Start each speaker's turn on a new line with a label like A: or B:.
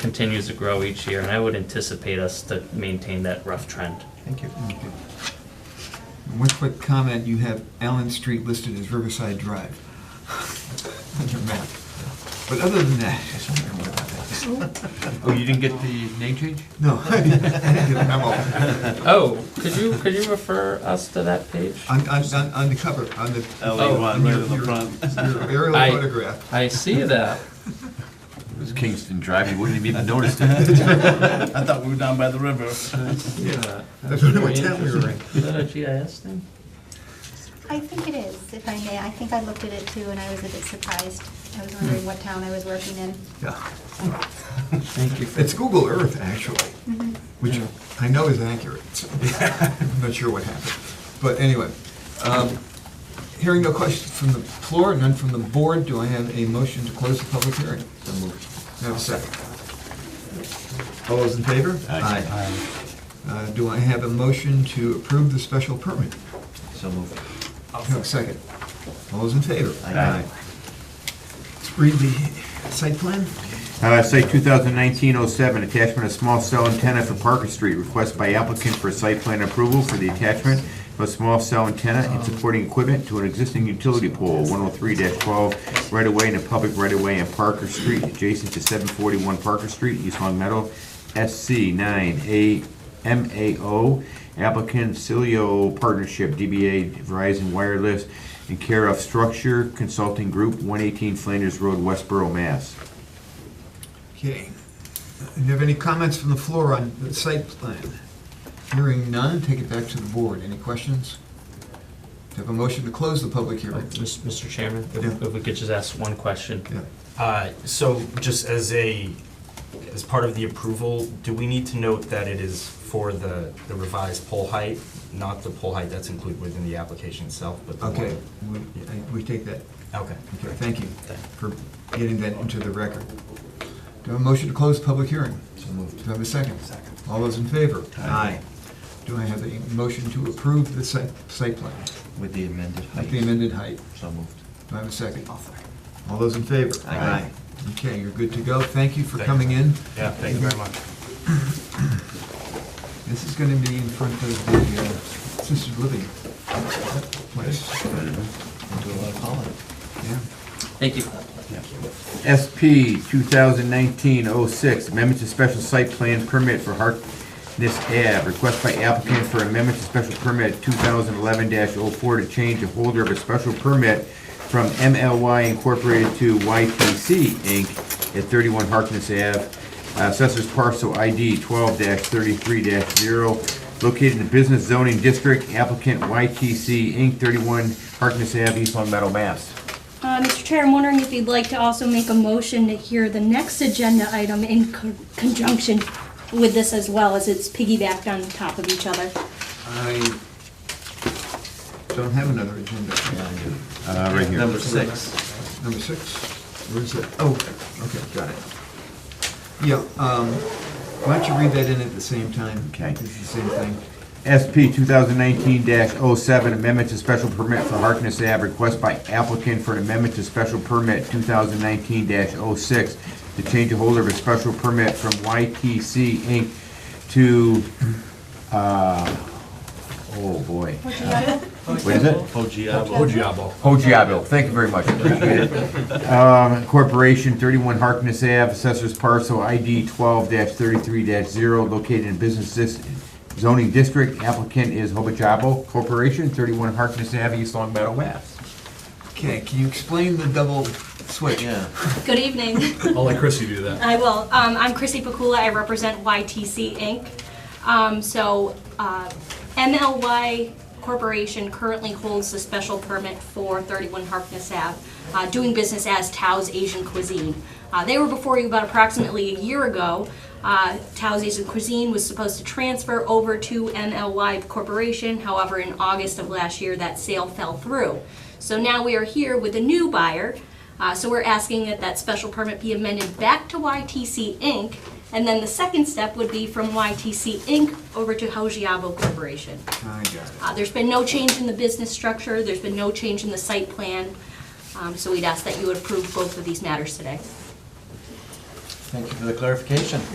A: continues to grow each year, and I would anticipate us to maintain that rough trend.
B: Thank you.
C: Okay. One quick comment, you have Allen Street listed as Riverside Drive on your map. But other than that,
B: I was wondering what about that.
D: Oh, you didn't get the name change?
C: no, I didn't I didn't get a memo.
A: Oh, could you, could you refer us to that page?
C: On, on, on- on the cover, on the.
A: Oh,
C: on your- your- Your aerial
A: I-
C: photograph.
A: I see that.
D: It was Kingston Drive, you wouldn't have even noticed it.
E: I thought we were down by the river.
A: Yeah.
C: That's what my town we were in.
A: Is that a GIS thing?
F: I think it is, if I may. I think I looked at it too, and I was a bit surprised. I was wondering what town I was working in.
C: Yeah.
A: Thank you. Mm-hmm.
C: It's Google Earth, actually.
F: Mhm.
C: which
A: Yeah.
C: I know is accurate. so I'm not sure what happened. But anyway, um, hearing no questions from the floor, none from the board, do I have a motion to close the public hearing? So moved. May I have a second? All those in favor?
D: Aye.
C: Uh, Do I have a motion to approve the special permit?
B: So moved.
C: May I have a second? All those in favor?
B: Aye.
C: Let's read the site plan.
G: Uh, Site 2019-07, attachment of small cell antenna for Parker Street. Request by applicant for site plan approval for the attachment of a small cell antenna and supporting equipment to an existing utility pole, 103-12, right-of-way in a public right-of-way in Parker Street, adjacent to 741 Parker Street, East Long Meadow, SC 9A MAO. Applicant Cilio Partnership, DBA Verizon Wireless, in care of Structure Consulting Group, 118 Flanders Road, Westboro, Mass.
C: Okay. Do you have any comments from the floor on the site plan? Hearing none, take it back to the board. Any questions? Do you have a motion to close the public hearing?
A: Mr. Chairman, if
C: Yeah.
A: if we could just ask one question.
C: Yeah.
H: Uh, So just as a, as part of the approval, do we need to note that it is for the the revised pole height, not the pole height that's included within the application itself, but the one?
C: Okay, we, I- we take that.
H: Okay.
C: Okay, thank you for getting that into the record. Do you have a motion to close the public hearing?
B: So moved.
C: Do I have a second? Second. All those in favor? Aye. Do I have a motion to approve the site, site plan
B: With the amended
C: at the
B: height.
C: amended height?
B: So moved.
C: Do I have a 2nd All those in favor?
B: Aye.
C: Okay, you're good to go. Thank you for
H: Thank you.
C: coming in.
H: Yeah, thank you very much.
C: This is gonna be in front of the uh, assisted living place,
B: Do a lot of pollen.
C: yeah.
A: Thank you.
G: SP 2019-06, amendment to special site plan permit for Harkness Ave. Request by applicant for amendment to special permit 2011-04 to change the holder of a special permit from MLY Incorporated to YTC Inc. at 31 Harkness Ave, uh, Assessors Parcel ID 12-33-0, located in the Business Zoning District, applicant YTC Inc., 31 Harkness Ave, East Long Meadow, Mass.
I: Uh, Mr. Chair, I'm wondering if you'd like to also make a motion to hear the next agenda item in co- conjunction with this as well, as it's piggybacked on top of each other.
C: I don't have another agenda.
B: Yeah, I do.
G: Uh, Right here.
B: Number six.
C: Number six, where is it? Oh, okay, got it. Yeah, um, why don't you read that in at the same time?
G: Okay.
C: It's the same thing.
G: SP 2019-07, amendment to special permit for Harkness Ave, request by applicant for an amendment to special permit 2019-06 to change the holder of a special permit from YTC Inc. to, uh, oh boy. What is it?
E: Oh, Giabo.
G: Hojiabo, thank you very much, appreciate it. Um, Corporation, 31 Harkness Ave, Assessors Parcel ID 12-33-0, located in Business Dis- Zoning District. Applicant is Hojiabo Corporation, 31 Harkness Ave, East Long Meadow, Mass.
C: Okay, can you explain the double switch?
B: Yeah.
I: Good evening.
E: I'll let Chrissy do that.
I: I will. Um, I'm Chrissy Pakula. I represent YTC Inc. Um, so, uh, MLY Corporation currently holds the special permit for 31 Harkness Ave, uh, doing business as Tao's Asian Cuisine. Uh, they were before you about approximately a year ago. Uh, Tao's Asian Cuisine was supposed to transfer over to MLY Corporation. However, in August of last year, that sale fell through. So now we are here with a new buyer, uh, So we're asking that that special permit be amended back to YTC Inc. And then the second step would be from YTC Inc. over to Hojiabo Corporation.
C: I got it.
I: Uh, There's been no change in the business structure, there's been no change in the site plan. Um, So we'd ask that you approve both of these matters today.
B: Thank you for the clarification.